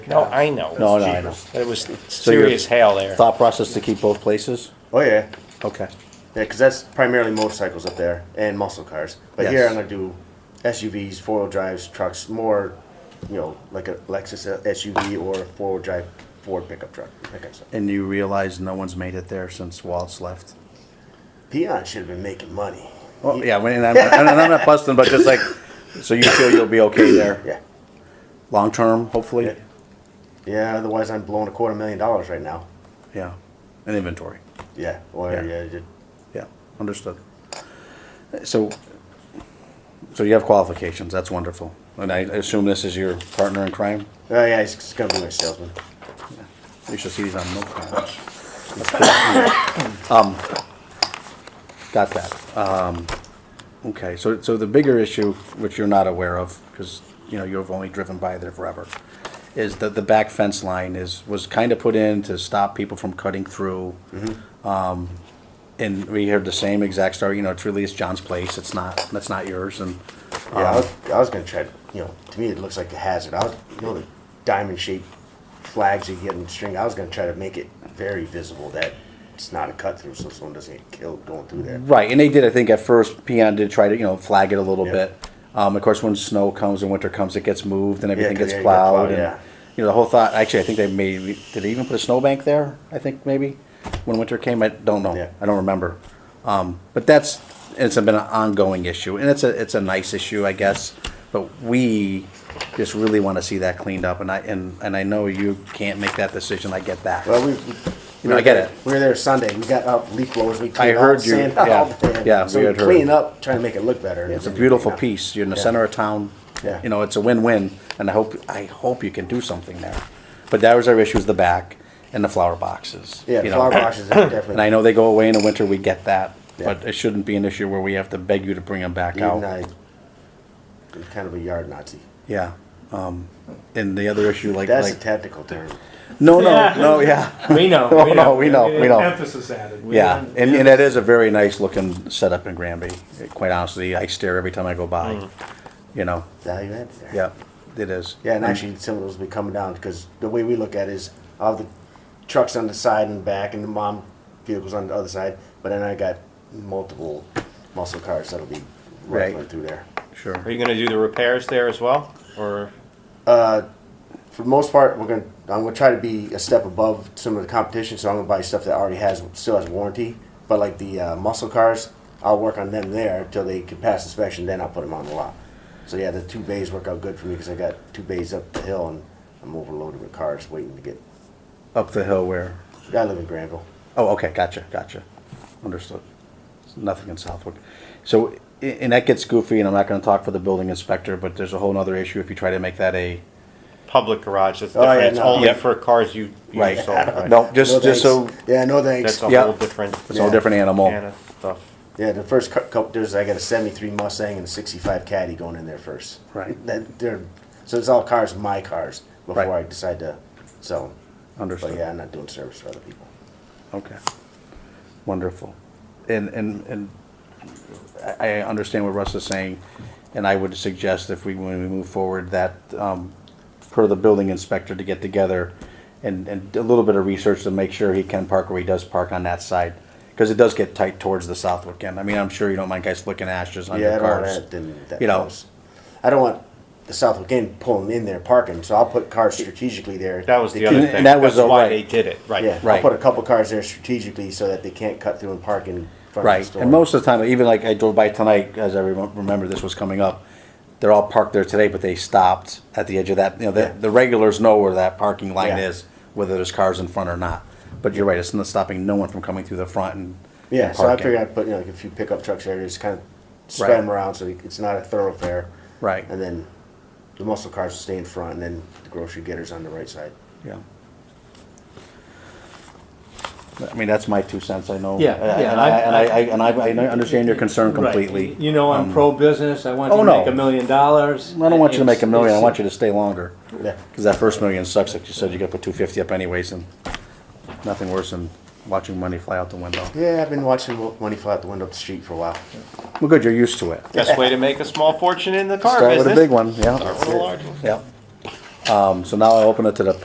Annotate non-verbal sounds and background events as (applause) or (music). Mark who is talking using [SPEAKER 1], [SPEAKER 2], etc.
[SPEAKER 1] No, I know.
[SPEAKER 2] No, no, I know.
[SPEAKER 1] It was
[SPEAKER 2] you're-
[SPEAKER 1] serious hail there.
[SPEAKER 2] Thought process to keep both places?
[SPEAKER 3] Oh yeah,
[SPEAKER 2] Okay.
[SPEAKER 3] yeah, because that's primarily motorcycles up there and muscle cars. But here
[SPEAKER 2] Yes.
[SPEAKER 3] I'm gonna do SUVs, four wheel drives, trucks, more, you know, like a Lexus SUV or a four wheel drive Ford pickup truck. That kind of stuff.
[SPEAKER 2] And you realize no one's made it there since Walt's left?
[SPEAKER 3] Peon should have been making money.
[SPEAKER 2] Well, yeah, when- and (laughs) I'm, and I'm not busting, but just like, so you feel you'll be okay there?
[SPEAKER 3] Yeah,
[SPEAKER 2] Long-term, hopefully?
[SPEAKER 3] Yeah. yeah. Otherwise, I'm blowing a quarter million dollars right now.
[SPEAKER 2] Yeah. And inventory?
[SPEAKER 3] Yeah, or
[SPEAKER 2] Yeah.
[SPEAKER 3] yeah, yeah,
[SPEAKER 2] Yeah, understood. So, so you have qualifications, that's wonderful. And I assume this is your partner in crime?
[SPEAKER 3] oh yeah, he's, he's gonna be my salesman.
[SPEAKER 2] You should see these on milk cartons. That's pretty cool. Um, Got that. Um, okay, so, so the bigger issue, which you're not aware of, because, you know, you've only driven by there forever, is that the back fence line is, was kind of put in to stop people from cutting through. Um, And we heard the same exact story, you know, it's really, it's John's place, it's not, that's not yours, and,
[SPEAKER 3] Yeah, I
[SPEAKER 2] um,
[SPEAKER 3] was, I was gonna try. To, you know, to me it looks like a hazard. I was, you know, the diamond shaped flags you get in string. I was gonna try to make it very visible that it's not a cut through, so someone doesn't get killed going through there.
[SPEAKER 2] Right, and they did. I think at first, Peon did try to you know flag it a little
[SPEAKER 3] Yeah.
[SPEAKER 2] bit. Um, of course, when snow comes and winter comes, it gets moved and everything
[SPEAKER 3] 'cause
[SPEAKER 2] gets
[SPEAKER 3] yeah, you got
[SPEAKER 2] plowed.
[SPEAKER 3] plowed,
[SPEAKER 2] and
[SPEAKER 3] yeah.
[SPEAKER 2] you know the whole thought. Actually, I think they maybe did they even put a snowbank there. I think maybe when winter came, I don't know.
[SPEAKER 3] Yeah.
[SPEAKER 2] I don't remember. Um, but that's it's been an ongoing issue, and it's a it's a nice issue, I guess. But we just really want to see that cleaned up, and I and, and I know you can't make that decision. I get that.
[SPEAKER 3] Well, we.
[SPEAKER 2] You know, I get it.
[SPEAKER 3] We were there Sunday. We got up leaf blowers. We cleaned
[SPEAKER 2] heard
[SPEAKER 3] all
[SPEAKER 2] you-
[SPEAKER 3] Sand
[SPEAKER 2] yeah,
[SPEAKER 3] all day.
[SPEAKER 2] yeah,
[SPEAKER 3] So
[SPEAKER 2] we
[SPEAKER 3] we,
[SPEAKER 2] had heard.
[SPEAKER 3] clean up, trying to make it look better. and
[SPEAKER 2] It's a
[SPEAKER 3] then we
[SPEAKER 2] beautiful
[SPEAKER 3] clean up.
[SPEAKER 2] piece. You're in the
[SPEAKER 3] Yeah.
[SPEAKER 2] center of town.
[SPEAKER 3] Yeah.
[SPEAKER 2] You know, it's a win-win, and I hope, I hope you can do something there. But that was our issue, is the back and the flower boxes.
[SPEAKER 3] Yeah,
[SPEAKER 2] you know.
[SPEAKER 3] flower boxes are definitely.
[SPEAKER 2] (coughs) And I know they go away in the winter, we get that,
[SPEAKER 3] Yeah.
[SPEAKER 2] but it shouldn't be an issue where we have to beg you to bring them back
[SPEAKER 3] Even
[SPEAKER 2] out.
[SPEAKER 3] I, I'm kind of a yard Nazi.
[SPEAKER 2] Yeah. Um, and the other issue, like,
[SPEAKER 3] That's a
[SPEAKER 2] like,
[SPEAKER 3] technical term.
[SPEAKER 2] no, no, no, yeah.
[SPEAKER 4] (laughs)
[SPEAKER 2] (laughs)
[SPEAKER 4] We know.
[SPEAKER 2] Oh, No, no, we know, we know.
[SPEAKER 4] Emphasis added. We
[SPEAKER 2] Yeah,
[SPEAKER 4] don't-
[SPEAKER 2] and, and that is a very nice looking setup in Granby. Quite honestly, I stare every time I go
[SPEAKER 4] Mm.
[SPEAKER 2] by, you know,
[SPEAKER 3] Value added there.
[SPEAKER 2] yeah, it is.
[SPEAKER 3] Yeah, and actually, some of those will be coming down because the way we look at it is all the trucks on the side and back, and the mom vehicles on the other side. But then I got multiple muscle cars that'll be rifling
[SPEAKER 2] Right.
[SPEAKER 3] through there.
[SPEAKER 2] Sure.
[SPEAKER 1] Are you gonna do the repairs there as well, or?
[SPEAKER 3] For the most part, we're gonna I'm gonna try to be a step above some of the competition, so I'm gonna buy stuff that already has still has warranty. But like the uh, muscle cars, I'll work on them there till they can pass inspection. Then I'll put them on the lot. So yeah, the two bays work out good for me because I got two bays up the hill and I'm overloaded with cars waiting to get.
[SPEAKER 2] Up the hill where?
[SPEAKER 3] I live in Granville.
[SPEAKER 2] Oh, okay, gotcha, gotcha. Understood. Nothing in Southwick. So, a- and that gets goofy, and I'm not gonna talk for the building inspector, but there's a whole nother issue if you try to make that a,
[SPEAKER 1] Public garage, that's
[SPEAKER 3] Oh, yeah,
[SPEAKER 1] different, it's
[SPEAKER 3] no.
[SPEAKER 1] only
[SPEAKER 2] Yep.
[SPEAKER 1] for cars you, you
[SPEAKER 2] Right. (laughs)
[SPEAKER 1] sold, right?
[SPEAKER 2] no, just, just so,
[SPEAKER 3] thanks. Yeah, no thanks.
[SPEAKER 1] That's a
[SPEAKER 2] Yeah.
[SPEAKER 1] whole different.
[SPEAKER 2] it's a whole different
[SPEAKER 1] can
[SPEAKER 2] animal.
[SPEAKER 1] of stuff.
[SPEAKER 3] yeah, the first cou- couple, there's I got a '73 Mustang and a '65 Caddy going in there first.
[SPEAKER 2] Right.
[SPEAKER 3] That they're so it's all cars, my cars, before
[SPEAKER 2] Right.
[SPEAKER 3] I decide to sell them. But yeah,
[SPEAKER 2] Understood,
[SPEAKER 3] I'm not doing service for other people.
[SPEAKER 2] okay. Wonderful. And, and, and I, I understand what Russ is saying, and I would suggest if we, when we move forward, that, um, per the building inspector to get together and, and a little bit of research to make sure he can park where he does park on that side. Cause it does get tight towards the southwick end. I mean, I'm sure you don't mind guys flicking ashes on your
[SPEAKER 3] yeah, I don't want
[SPEAKER 2] cars.
[SPEAKER 3] that, then that
[SPEAKER 2] You know.
[SPEAKER 3] close. I don't want the Southwick Inn pulling in there parking, so I'll put cars strategically there.
[SPEAKER 1] That was
[SPEAKER 3] They
[SPEAKER 1] the other
[SPEAKER 2] And-
[SPEAKER 1] thing,
[SPEAKER 2] and that was
[SPEAKER 1] that's why
[SPEAKER 2] alright.
[SPEAKER 1] they did it,
[SPEAKER 3] can't- Yeah,
[SPEAKER 1] right.
[SPEAKER 2] Right.
[SPEAKER 3] I'll put a couple cars there strategically so that they can't cut through and park in front of the
[SPEAKER 2] Right,
[SPEAKER 3] store.
[SPEAKER 2] and most of the time, even like I drove by tonight, as I remem- remember this was coming up, they're all parked there today, but they stopped at the edge of that, you know, the,
[SPEAKER 3] Yeah.
[SPEAKER 2] the regulars know where that parking line
[SPEAKER 3] Yeah.
[SPEAKER 2] is, whether there's cars in front or not. But you're right, it's not stopping no one from coming through the front and.
[SPEAKER 3] Yeah,
[SPEAKER 2] and
[SPEAKER 3] so I
[SPEAKER 2] parking.
[SPEAKER 3] figured I'd put, you know, like a few pickup trucks there, just kind of spread
[SPEAKER 2] Right.
[SPEAKER 3] them around so it's not a thoroughfare.
[SPEAKER 2] Right.
[SPEAKER 3] And then the muscle cars will stay in front and then the grocery getters on the right side.
[SPEAKER 2] Yeah. I mean, that's my two cents, I know.
[SPEAKER 4] Yeah,
[SPEAKER 2] And I-
[SPEAKER 4] yeah,
[SPEAKER 2] And I,
[SPEAKER 4] I-
[SPEAKER 2] and I, and I, and I understand your concern
[SPEAKER 4] Right.
[SPEAKER 2] completely. Um,
[SPEAKER 4] You know, I'm pro-business, I want
[SPEAKER 2] oh,
[SPEAKER 4] you to
[SPEAKER 2] no.
[SPEAKER 4] make a million dollars.
[SPEAKER 2] I don't want you to make a million, I want
[SPEAKER 4] you.
[SPEAKER 2] you to stay longer.
[SPEAKER 3] Yeah.
[SPEAKER 2] Cause that first million sucks, like you said, you gotta put two fifty up anyways, and nothing worse than watching money fly out the window.
[SPEAKER 3] Yeah, I've been watching Mo- Money Fly Out the Window up the Street for a while.
[SPEAKER 2] Well, good, you're used to it.
[SPEAKER 1] Best way to make a small fortune in the car
[SPEAKER 2] Start
[SPEAKER 1] business.
[SPEAKER 2] with a big one, yeah, (laughs)
[SPEAKER 1] Start with a large one.
[SPEAKER 2] yeah. Um, so now I open it to the